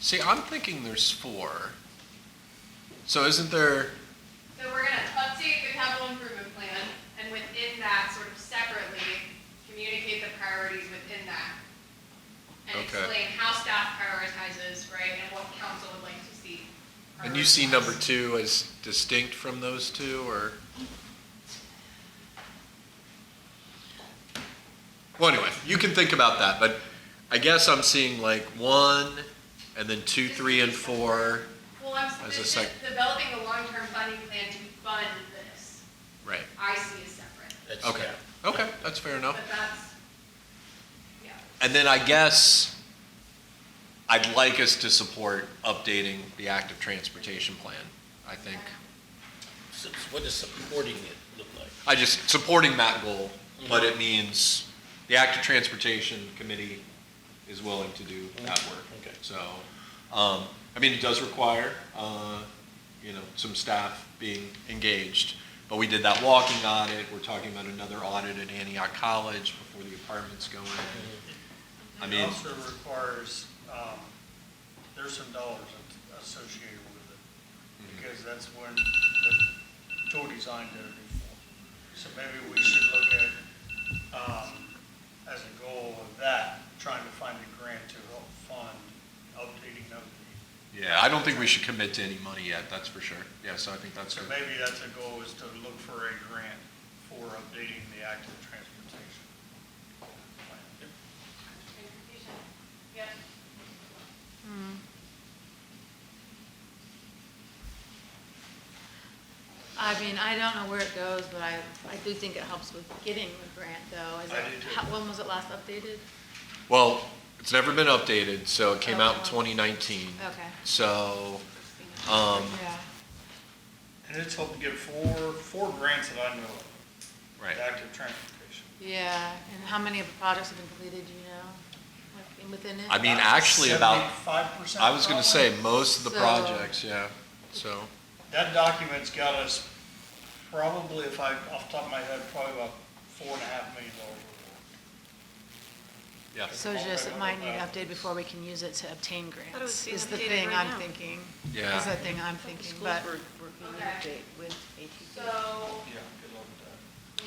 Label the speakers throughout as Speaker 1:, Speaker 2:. Speaker 1: See, I'm thinking there's four. So isn't there,
Speaker 2: So we're gonna update the capital improvement plan, and within that, sort of separately, communicate the priorities within that. And
Speaker 1: Okay.
Speaker 2: explain how staff prioritizes, right, and what council would like to see.
Speaker 1: and you see number
Speaker 2: prioritized.
Speaker 1: two as distinct from those two, or? Well, anyway, you can think about that, but I guess I'm seeing like one, and then two, three, and four.
Speaker 2: Well, I'm,
Speaker 1: as
Speaker 2: this
Speaker 1: a
Speaker 2: is
Speaker 1: sec-
Speaker 2: developing a long-term funding plan to fund this,
Speaker 1: Right,
Speaker 2: I see as separate,
Speaker 3: That's-
Speaker 1: okay,
Speaker 3: yeah.
Speaker 1: okay, that's fair enough.
Speaker 2: but that's, yeah.
Speaker 1: And then I guess I'd like us to support updating the active transportation plan, I think.
Speaker 3: So What does supporting it look like?
Speaker 1: I just, supporting that goal, but it means the active transportation committee is willing to do that work.
Speaker 3: Okay.
Speaker 1: So, um, I mean, it does require, uh, you know, some staff being engaged. But we did that walking audit, we're talking about another audit at Antioch College before the apartments go in. I mean-
Speaker 4: It also requires, um, there's some dollars associated with
Speaker 1: Mm-hmm.
Speaker 4: it, because that's when the tool design did it before. So maybe we should look at, um, as a goal of that, trying to find a grant to help fund updating of the,
Speaker 1: Yeah, I don't think we should commit to any money yet, that's for sure. Yeah, so I think that's
Speaker 4: so
Speaker 1: good.
Speaker 4: maybe that's a goal, is to look for a grant for updating the active transportation. plan.
Speaker 2: Transportation, yep.
Speaker 5: I mean, I don't know where it goes, but I, I do think it helps with getting the grant, though. Is
Speaker 4: I do,
Speaker 5: it-
Speaker 4: too.
Speaker 5: how- When was it last updated?
Speaker 1: Well, it's never been updated, so it came out in
Speaker 5: Okay.
Speaker 1: 2019.
Speaker 5: Okay.
Speaker 1: So, um,
Speaker 5: Yeah.
Speaker 4: And it's helped to get four, four grants that I know of.
Speaker 1: right.
Speaker 4: Active transportation.
Speaker 5: Yeah, and how many of the projects have been completed, do you know, like, within it?
Speaker 1: I mean, actually about,
Speaker 4: Seventy-five percent.
Speaker 1: I was going to say, most of the
Speaker 5: So-
Speaker 1: projects, yeah, so,
Speaker 4: That document's got us probably, if I, off the top of my head, probably about four and a half million dollars.
Speaker 1: yeah.
Speaker 5: So just, it might need to update before we can use it to obtain
Speaker 6: Thought it was
Speaker 5: grants, is the
Speaker 6: being updated
Speaker 5: thing
Speaker 6: right
Speaker 5: I'm
Speaker 6: now.
Speaker 5: thinking.
Speaker 1: Yeah.
Speaker 5: Is the thing I'm thinking, but,
Speaker 6: working
Speaker 2: on an Okay.
Speaker 6: with
Speaker 2: So,
Speaker 4: Yeah, good luck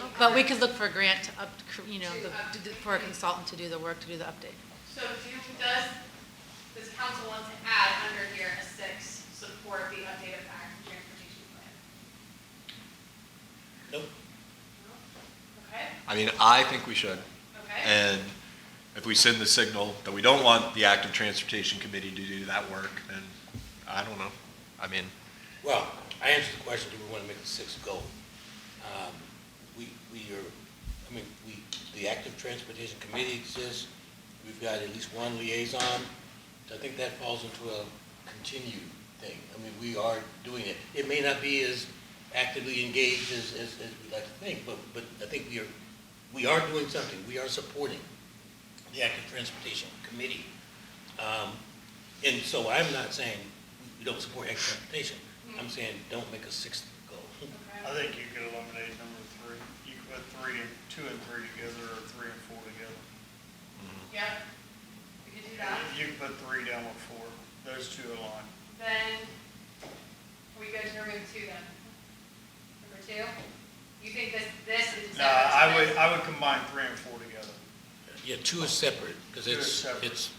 Speaker 4: with that.
Speaker 5: but we could look for a grant to up, you know,
Speaker 2: To
Speaker 5: the-
Speaker 2: update.
Speaker 5: for a consultant to do the work, to do the update.
Speaker 2: So do, does, does council want to add under here a six, support the update of the active transportation plan?
Speaker 3: Nope.
Speaker 2: Okay,
Speaker 1: I mean, I think we should.
Speaker 2: okay.
Speaker 1: And if we send the signal that we don't want the active transportation committee to do that work, then I don't know. I mean,
Speaker 3: Well, I answered the question, do we want to make the sixth goal? Um, We, we are, I mean, we, the active transportation committee exists, we've got at least one liaison, so I think that falls into a continued thing. I mean, we are doing it. It may not be as actively engaged as, as, as we'd like to think, but, but I think we are, we are doing something, we are supporting the active transportation committee. Um, And so I'm not saying we don't support active transportation, I'm saying don't make a sixth goal.
Speaker 2: Okay.
Speaker 4: I think you could eliminate number three. You could put three and, two and three together, or three and four together.
Speaker 2: Yep, we could do that.
Speaker 4: You could put three down with four. Those two align.
Speaker 2: Then, we go to number two then. Number two, you think this, this is.
Speaker 4: No, I would, I would combine three and four together.
Speaker 3: Yeah, two is separate, because
Speaker 4: Two is
Speaker 3: it's,
Speaker 4: separate.
Speaker 3: it's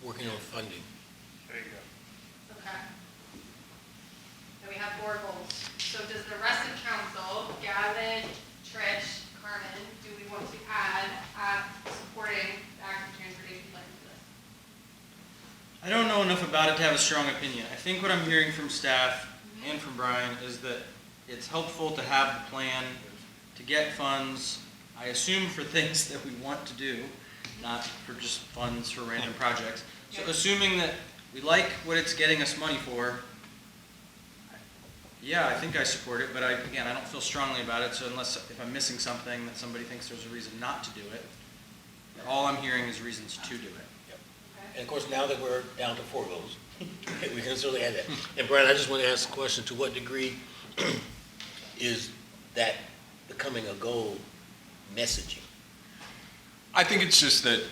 Speaker 3: working on funding.
Speaker 4: There you go.
Speaker 2: Okay. Then we have four goals. So does the rest of council, Gavin, Trish, Carmen, do we want to add, add supporting the active transportation plan to this?
Speaker 7: I don't know enough about it to have a strong opinion. I think what I'm hearing from staff and from Brian is that it's helpful to have the plan to get funds, I assume for things that we want to do, not for just funds for random projects. So
Speaker 2: Yeah.
Speaker 7: assuming that we like what it's getting us money for, yeah, I think I support it, but I, again, I don't feel strongly about it, so unless, if I'm missing something that somebody thinks there's a reason not to do it, all I'm hearing is reasons to do it.
Speaker 2: Okay.
Speaker 3: And of course, now that we're down to four goals, we can certainly add that. And Brian, I just want to ask a question, to what degree is that becoming a goal messaging?
Speaker 1: I think it's just that